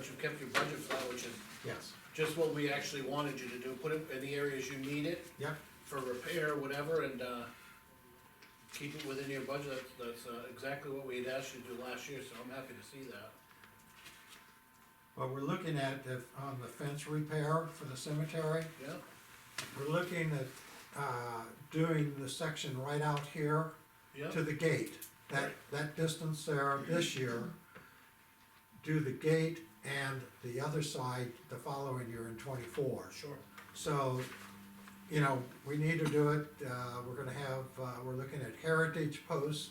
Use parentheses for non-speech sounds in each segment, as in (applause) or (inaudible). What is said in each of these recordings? kept your budget flat, which is yes, just what we actually wanted you to do, put it in the areas you need it yeah, for repair, whatever, and, uh, keep it within your budget, that's, that's uh, exactly what we had asked you to do last year, so I'm happy to see that. but we're looking at, the- on the fence repair for the cemetery, Yeah, we're looking at, uh, doing the section right out here to yeah, the gate. That, that distance there this year, do the gate and the other side the following year in twenty-four. sure, So, you know, we need to do it, uh, we're gonna have, uh, we're looking at heritage posts,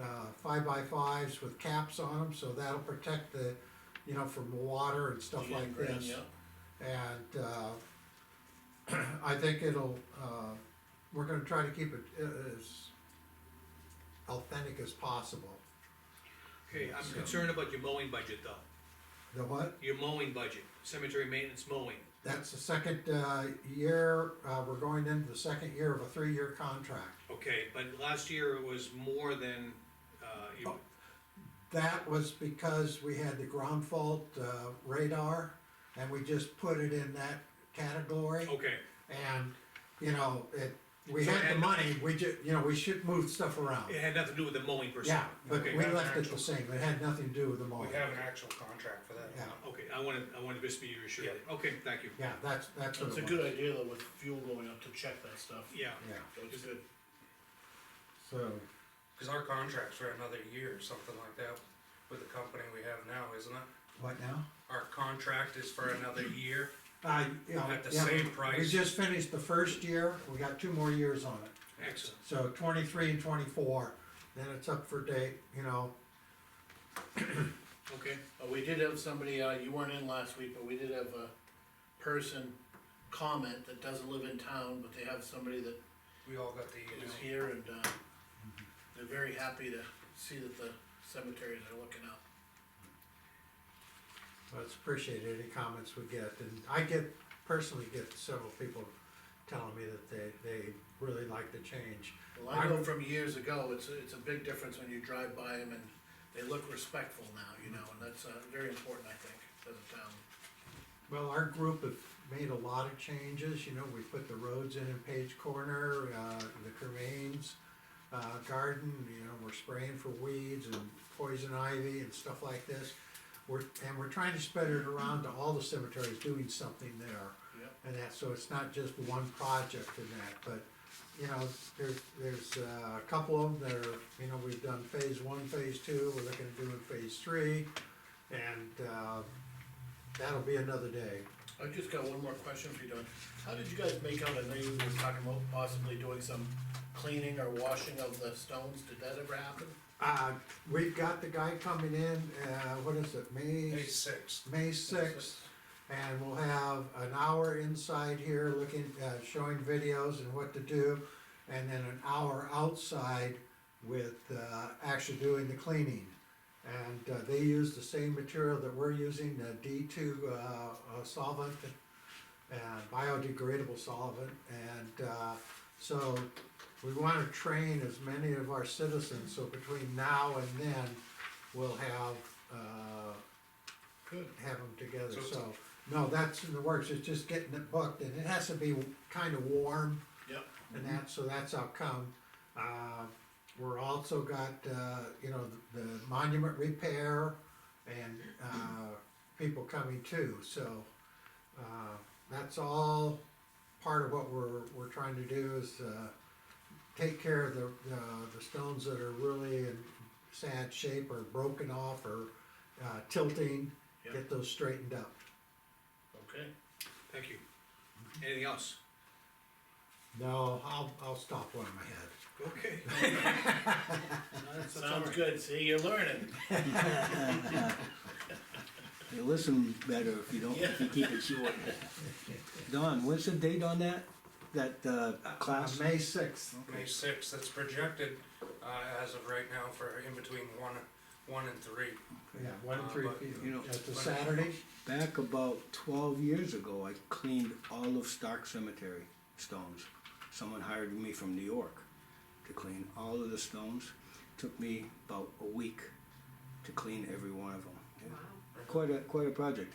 uh, five by fives with caps on them, so that'll protect the, you know, from water and stuff Yeah, like green, this. yeah. And, uh, (clears throat) I think it'll, uh, we're gonna try to keep it a- as authentic as possible. Okay, I'm concerned about your mowing budget though, The what? your mowing budget, cemetery maintenance mowing. That's the second, uh, year, uh, we're going into the second year of a three-year contract. Okay, but last year it was more than, uh, you, Oh, That was because we had the ground fault uh, radar and we just put it in that category. okay, And, you know, it, we So it had the had- money, we ju, you know, we should move stuff around. it had nothing to do with the mowing per se. Yeah, but Okay, we left it the actual- same, it had nothing to do with the We mowing. have an actual contract for that. Oh, Yeah, Okay, I wanted, I wanted to just be reassured, Yeah. okay, thank you, yeah, that's, that's what That's a it good was. idea though, with fuel going up to check that stuff. yeah. Yeah, That's good. so, Cause our contract's for another year or something like that with the company we have now, isn't it? what now? Our contract is for another year. Uh, you know, At the yeah, same we- We price. just finished the first year, we got two more years on it. Excellent, So twenty-three and twenty-four, then it's up for date, you know, okay, Uh, we did have somebody, uh, you weren't in last week, but we did have a person comment that doesn't live in town, but they have somebody that We all got the is email. here and, uh, they're very happy to see that the cemeteries are looking up. Well, it's appreciated, any comments we get, and I get, personally get several people telling me that they, they really like the change. Well, I know I'm- from years ago, it's, a- it's a big difference when you drive by them and they look respectful now, you know, and that's, uh, very important, I think, as a town. Well, our group have made a lot of changes, you know, we put the roads in in Page Corner, uh, the cremains, uh, garden, you know, we're spraying for weeds and poison ivy and stuff like this. We're, and we're trying to spread it around to all the cemeteries doing something there. Yep. and that, so it's not just one project in that, but, you know, there's, there's uh, a couple of them that are, you know, we've done phase one, phase two, we're looking at doing phase three, and, uh, that'll be another day. I've just got one more question for you, Don. How did you guys make out, I know you were talking about possibly doing some cleaning or washing of the stones, did that ever happen? Uh, we've got the guy coming in, uh, what is it, May, May sixth. May sixth, and we'll have an hour inside here looking, uh, showing videos and what to do, and then an hour outside with, uh, actually doing the cleaning. And, uh, they use the same material that we're using, the D two, uh, uh, solvent, uh, biodegradable solvent, and, uh, so we wanna train as many of our citizens, so between now and then, we'll have, uh, Good. have them together, So- so, no, that's in the works, it's just getting it booked, and it has to be kinda warm Yep, and that, so that's how come. Uh, we're also got, uh, you know, the the monument repair and, uh, people coming too, so, uh, that's all part of what we're, we're trying to do is, uh, take care of the, uh, the stones that are really in sad shape or broken off or, uh, tilting, Yeah. get those straightened up. (laughs) okay. thank you. Anything else? No, I'll, I'll stop one in my head. Okay. Sounds good, see, you're learning. You listen better if you don't, if you keep it short. Don, what's the date on that, that, uh, class? Uh, May sixth. May sixth, that's projected, uh, as of right now for in between one, one and three. Yeah, one and Uh, three but, feet. you know, That's a when- Saturday, Back about twelve years ago, I cleaned all of Stark Cemetery stones. Someone hired me from New York to clean all of the stones. Took me about a week to clean every one of them. Quite a, quite a project,